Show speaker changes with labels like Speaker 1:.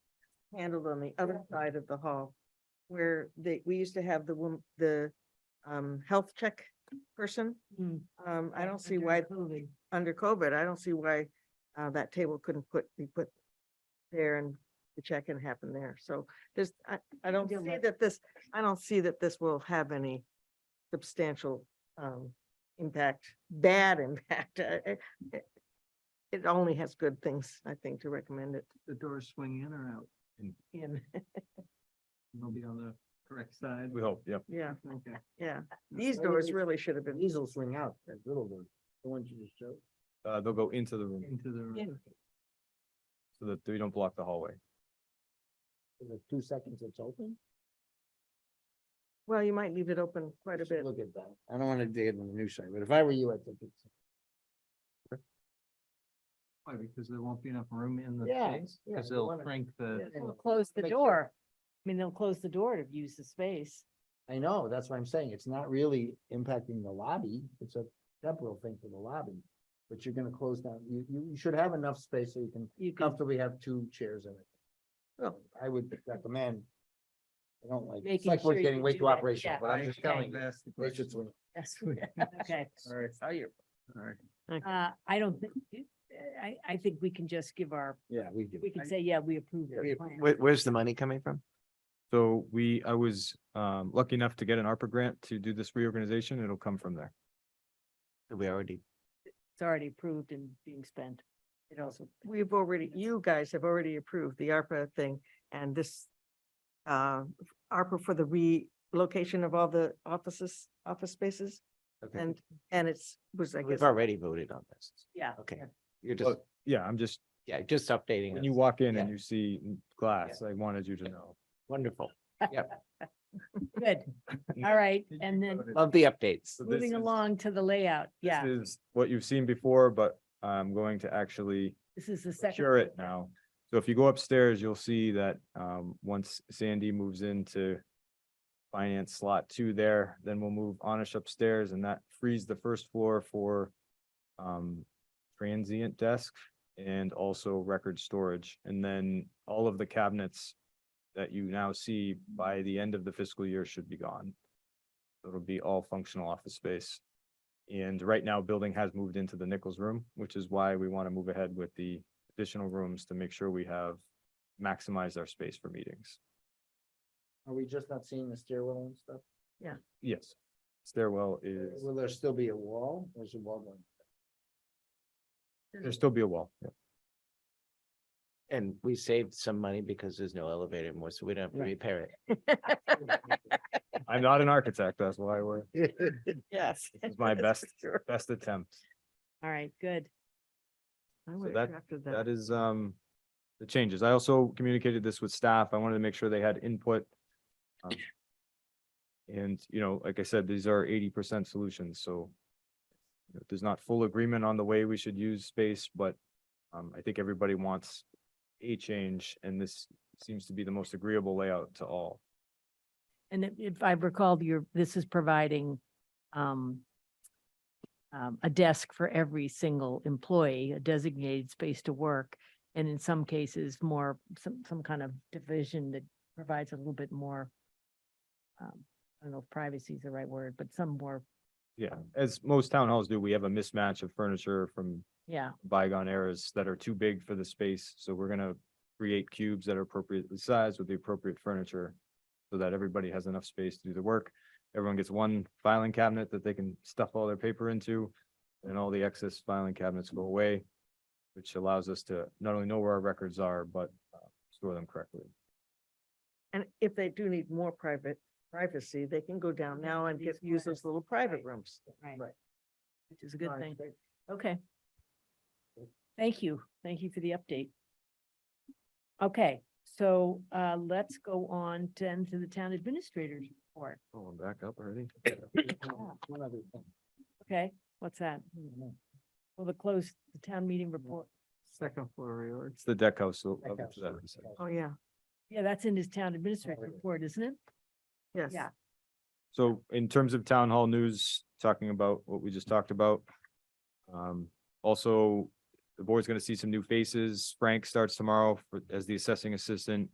Speaker 1: handled on the other side of the hall. Where they, we used to have the wom- the um health check person.
Speaker 2: Mm.
Speaker 1: Um, I don't see
Speaker 2: Under
Speaker 1: why,
Speaker 2: COVID.
Speaker 1: under COVID, I don't see why uh that table couldn't put, be put there and the check-in happened there. So there's, I, I don't see
Speaker 2: Yeah, but-
Speaker 1: that this, I don't see that this will have any substantial um impact, bad impact. Uh, uh, uh, It only has good things, I think, to recommend it
Speaker 3: the doors swing in or out,
Speaker 1: in.
Speaker 3: and they'll be on the correct side.
Speaker 4: We hope, yep.
Speaker 1: Yeah,
Speaker 3: Okay.
Speaker 1: yeah. These
Speaker 3: Why would
Speaker 1: doors
Speaker 3: they-
Speaker 1: really should have been,
Speaker 5: These will swing out, that little one, the ones you just showed.
Speaker 4: Uh, they'll go into the room
Speaker 3: Into the,
Speaker 1: in.
Speaker 4: so that we don't block the hallway.
Speaker 5: For the two seconds it's open.
Speaker 1: well, you might leave it open quite a
Speaker 5: Just
Speaker 1: bit.
Speaker 5: Look at that. I don't want to dig it on the new side, but if I were you, I think it's,
Speaker 3: why, because there won't be enough room in the
Speaker 5: Yeah,
Speaker 3: space,
Speaker 5: yeah,
Speaker 3: because
Speaker 5: you
Speaker 3: they'll
Speaker 5: wanna-
Speaker 3: shrink the,
Speaker 5: Yeah.
Speaker 2: They'll Close the
Speaker 5: Make sure-
Speaker 2: door. I mean, they'll close the door to use the space.
Speaker 5: I know, that's what I'm saying. It's not really impacting the lobby. It's a temporal thing for the lobby. But you're gonna close down, you, you, you should have enough space so you can
Speaker 2: You
Speaker 4: Oh.
Speaker 2: can
Speaker 5: comfortably have two chairs in it.
Speaker 1: Well,
Speaker 5: I would recommend. I don't like, it's
Speaker 2: Making
Speaker 5: like
Speaker 2: sure
Speaker 5: we're
Speaker 2: you
Speaker 5: getting way
Speaker 2: do
Speaker 5: too
Speaker 2: that,
Speaker 5: operational,
Speaker 2: yeah.
Speaker 5: but I'm just telling you.
Speaker 3: That's the
Speaker 5: They
Speaker 3: question.
Speaker 5: should swing.
Speaker 2: Yes, okay.
Speaker 3: All right,
Speaker 5: How you?
Speaker 3: all right.
Speaker 2: Uh, I don't think, uh, I, I think we can just give our,
Speaker 5: Yeah, we do.
Speaker 2: we can say, yeah, we approve
Speaker 5: We-
Speaker 2: your plan.
Speaker 5: where's the money coming from?
Speaker 4: So we, I was um lucky enough to get an ARPA grant to do this reorganization. It'll come from there.
Speaker 5: We already
Speaker 2: It's already approved and being spent. It also,
Speaker 1: We've already, you guys have already approved the ARPA thing and this uh, ARPA for the relocation of all the offices, office spaces.
Speaker 5: Okay.
Speaker 1: And, and it's, was, I guess,
Speaker 5: We've already voted on this.
Speaker 2: yeah.
Speaker 5: Okay, you're just,
Speaker 4: Well, Yeah, I'm just,
Speaker 5: yeah, just updating.
Speaker 4: when you
Speaker 5: us.
Speaker 4: walk in
Speaker 5: Yeah.
Speaker 4: and you see glass, I wanted you to know.
Speaker 5: Wonderful.
Speaker 2: Good. All right.
Speaker 3: Did
Speaker 2: And then
Speaker 5: Love the updates.
Speaker 4: So this
Speaker 2: moving
Speaker 4: is-
Speaker 2: along to the layout. Yeah,
Speaker 4: This is what you've seen before, but I'm going to actually
Speaker 2: this is the second.
Speaker 4: secure it now. So if you go upstairs, you'll see that um once Sandy moves into finance slot two there, then we'll move Anish upstairs and that frees the first floor for um transient desk and also record storage. And then all of the cabinets that you now see by the end of the fiscal year should be gone. It'll be all functional office space. And right now, building has moved into the Nichols room, which is why we want to move ahead with the additional rooms to make sure we have maximized our space for meetings.
Speaker 5: Are we just not seeing the stairwell and stuff?
Speaker 4: Yes. Stairwell is,
Speaker 5: Will there still be a wall? There's a wall going.
Speaker 4: there'll still be a wall. yeah.
Speaker 6: And we saved some money because there's no elevator anymore, so we don't have to
Speaker 5: Right.
Speaker 6: repair it.
Speaker 4: I'm not an architect, that's why we're,
Speaker 1: yes.
Speaker 4: this is my
Speaker 1: that's
Speaker 4: best,
Speaker 1: for sure.
Speaker 4: best attempt.
Speaker 2: All right, good.
Speaker 1: I would
Speaker 4: that-
Speaker 1: have drafted
Speaker 4: That
Speaker 1: that.
Speaker 4: is, um, the changes. I also communicated this with staff. I wanted to make sure they had input. um, And, you know, like I said, these are eighty percent solutions, so you know, there's not full agreement on the way we should use space, but um, I think everybody wants a change, and this seems to be the most agreeable layout to all.
Speaker 2: And if- if I recall, your this is providing um, um, a desk for every single employee, a designated space to work. And in some cases, more, some, some kind of division that provides a little bit more, um, I don't know if privacy is the right word, but some more,
Speaker 4: Yeah, as most town halls do, we have a mismatch of furniture from
Speaker 2: yeah,
Speaker 4: bygone eras that are too big for the space, so we're gonna create cubes that are appropriately sized with the appropriate furniture so that everybody has enough space to do the work. Everyone gets one filing cabinet that they can stuff all their paper into, and all the excess filing cabinets go away, which allows us to not only know where our records are, but uh, store them correctly.
Speaker 1: And if they do need more private privacy, they can go down now and get,
Speaker 2: These
Speaker 1: use those little private
Speaker 2: right.
Speaker 1: rooms.
Speaker 2: right,
Speaker 5: Right.
Speaker 2: which is a good thing. Okay. Thank you. Thank you for the update. Okay, so uh, let's go on then to the town administrator's report.
Speaker 4: Oh, I'm back up already?
Speaker 5: One other thing.
Speaker 2: Okay, what's that? Well, the close, the town meeting report.
Speaker 3: Second floor reorg.
Speaker 4: It's the deck house. so I'll
Speaker 5: Deck
Speaker 4: get to that in a
Speaker 5: house.
Speaker 4: second.
Speaker 1: Oh, yeah,
Speaker 2: Yeah, that's in his town administrator report, isn't it?
Speaker 1: yes.
Speaker 2: Yeah.
Speaker 4: So in terms of town hall news, talking about what we just talked about. Um, also, the board's gonna see some new faces. Frank starts tomorrow for- as the assessing assistant.